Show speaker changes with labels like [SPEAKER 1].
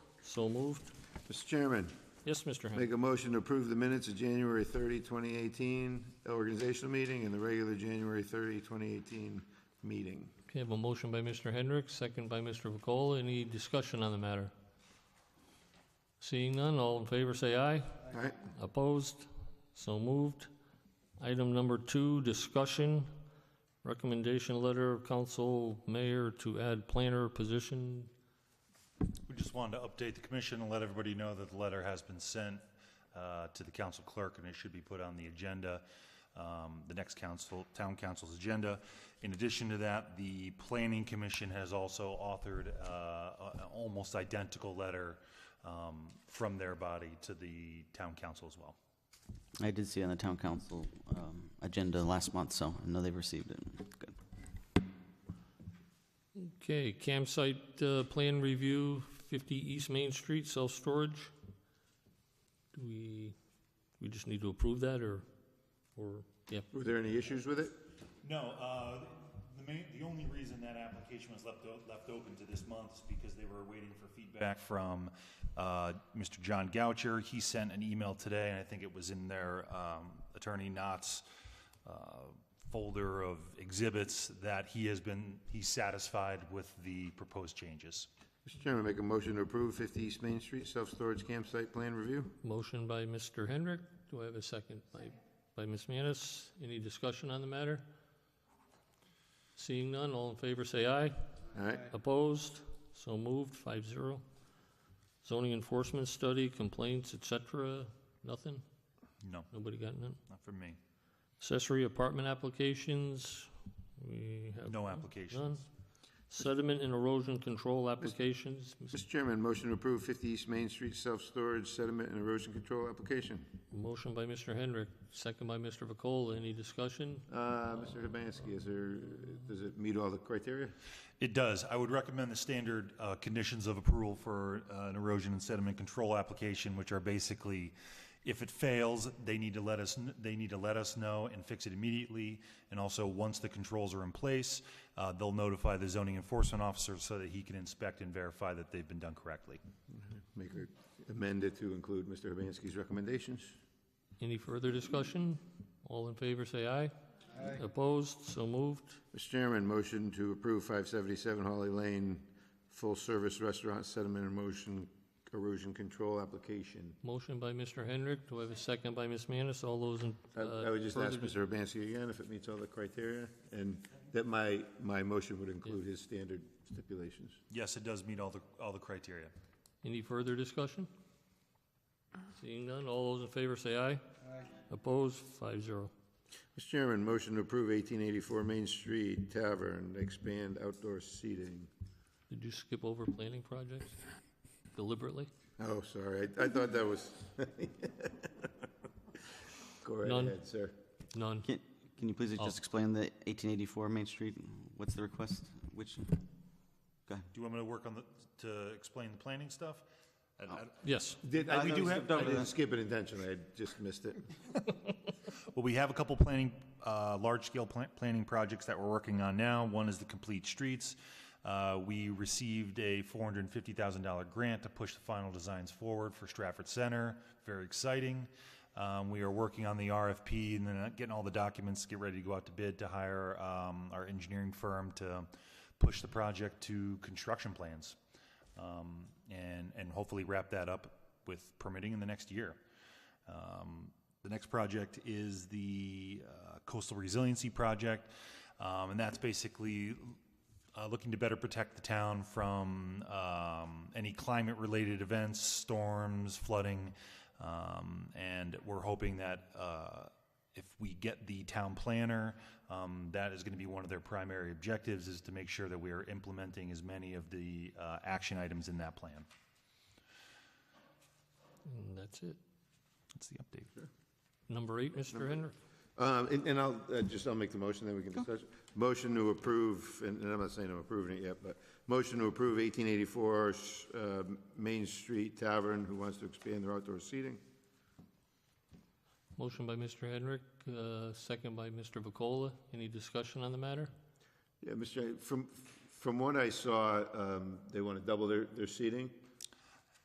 [SPEAKER 1] So moved.
[SPEAKER 2] Mr. Chairman,
[SPEAKER 1] Yes, Mr. Henry.
[SPEAKER 2] make a motion to approve the minutes of January 30, 2018 organizational meeting and the regular January 30, 2018 meeting.
[SPEAKER 1] Okay, I have a motion by Mr. Hendricks, second by Mr. Vakola. Any discussion on the matter? Seeing none, all in favor say aye.
[SPEAKER 2] All right,
[SPEAKER 1] Opposed? So moved. Item number two, discussion, recommendation letter of council mayor to add planner position.
[SPEAKER 3] We just wanted to update the commission and let everybody know that the letter has been sent uh, to the council clerk, and it should be put on the agenda, um, the next council, town council's agenda. In addition to that, the planning commission has also authored uh, a- an almost identical letter um, from their body to the town council as well.
[SPEAKER 4] I did see on the town council um, agenda last month, so I know they've received it. Good.
[SPEAKER 1] Okay, campsite uh, plan review, 50 East Main Street, self-storage. Do we, we just need to approve that or, or, yeah,
[SPEAKER 2] were there any issues with it?
[SPEAKER 3] No, uh, the main, the only reason that application was left, o- left open to this month is because they were waiting for feedback from, uh, Mr. John Goucher. He sent an email today, and I think it was in their, um, attorney Knott's, uh, folder of exhibits that he has been, he's satisfied with the proposed changes.
[SPEAKER 2] Mr. Chairman, make a motion to approve 50 East Main Street Self-Storage Campsite Plan Review.
[SPEAKER 1] Motion by Mr. Hendrick. Do I have a second? By, by Ms. Manis. Any discussion on the matter? Seeing none, all in favor say aye.
[SPEAKER 2] All right,
[SPEAKER 1] Opposed? So moved, five zero. Zoning enforcement study, complaints, et cetera, nothing?
[SPEAKER 3] No,
[SPEAKER 1] Nobody got none?
[SPEAKER 3] not for me.
[SPEAKER 1] Accessory apartment applications, we have
[SPEAKER 3] No
[SPEAKER 1] none.
[SPEAKER 3] applications.
[SPEAKER 1] Sediment and erosion control applications,
[SPEAKER 2] Mr. Chairman, motion to approve 50 East Main Street Self-Storage Sediment and Erosion Control Application.
[SPEAKER 1] motion by Mr. Hendrick, second by Mr. Vakola. Any discussion?
[SPEAKER 2] Uh, Mr. Hibansky, is there, does it meet all the criteria?
[SPEAKER 3] It does. I would recommend the standard uh, conditions of approval for uh, an erosion and sediment control application, which are basically, if it fails, they need to let us, kn- they need to let us know and fix it immediately. And also, once the controls are in place, uh, they'll notify the zoning enforcement officer so that he can inspect and verify that they've been done correctly.
[SPEAKER 2] Make her amend it to include Mr. Hibansky's recommendations.
[SPEAKER 1] Any further discussion? All in favor, say aye. Opposed, so moved.
[SPEAKER 2] Mr. Chairman, motion to approve 577 Holly Lane, full-service restaurant sediment and motion erosion control application.
[SPEAKER 1] Motion by Mr. Hendrick. Do I have a second by Ms. Manis? All those in, uh,
[SPEAKER 2] I- I would just ask
[SPEAKER 1] further-
[SPEAKER 2] Mr. Urbanski again if it meets all the criteria, and that my, my motion would include his standard stipulations.
[SPEAKER 3] Yes, it does meet all the, all the criteria.
[SPEAKER 1] any further discussion? Seeing none, all those in favor say aye. Opposed, five zero.
[SPEAKER 2] Mr. Chairman, motion to approve 1884 Main Street Tavern, expand outdoor seating.
[SPEAKER 1] Did you skip over planning projects deliberately?
[SPEAKER 2] Oh, sorry, I I thought that was. Go right
[SPEAKER 1] None.
[SPEAKER 2] ahead, sir.
[SPEAKER 1] None.
[SPEAKER 4] Can, can you please just explain the 1884 Main Street? What's the request? Which, go ahead.
[SPEAKER 3] Do you want me to work on the, to explain the planning stuff? I- I-
[SPEAKER 1] Yes.
[SPEAKER 2] Did, I,
[SPEAKER 4] I
[SPEAKER 2] we
[SPEAKER 4] thought
[SPEAKER 2] do
[SPEAKER 4] we
[SPEAKER 2] have,
[SPEAKER 4] skipped
[SPEAKER 2] I
[SPEAKER 4] over
[SPEAKER 2] didn't
[SPEAKER 4] that.
[SPEAKER 2] skip it intentionally, I just missed it.
[SPEAKER 3] Well, we have a couple planning, uh, large-scale plan- planning projects that we're working on now. One is the Complete Streets. Uh, We received a $450,000 grant to push the final designs forward for Stratford Center. Very exciting. Um, We are working on the RFP and then uh, getting all the documents, get ready to go out to bid to hire um, our engineering firm to push the project to construction plans um, and, and hopefully wrap that up with permitting in the next year. Um, The next project is the uh, coastal resiliency project, um, and that's basically uh, looking to better protect the town from um, any climate-related events, storms, flooding, um, and we're hoping that uh, if we get the town planner, um, that is going to be one of their primary objectives, is to make sure that we are implementing as many of the uh, action items in that plan.
[SPEAKER 1] And that's it.
[SPEAKER 3] That's the update.
[SPEAKER 1] Number eight, Mr. Hendrick.
[SPEAKER 2] Um, and, and I'll, uh, just, I'll make the motion, then we can discuss. Motion to approve, and, and I'm not saying I'm approving it yet, but motion to approve eighteen eighty-four, uh, Main Street Tavern, who wants to expand their outdoor seating.
[SPEAKER 1] Motion by Mr. Hendrick, uh, second by Mr. Vakola. Any discussion on the matter?
[SPEAKER 2] Yeah, Mr. Chair, from, from what I saw, um, they want to double their, their seating.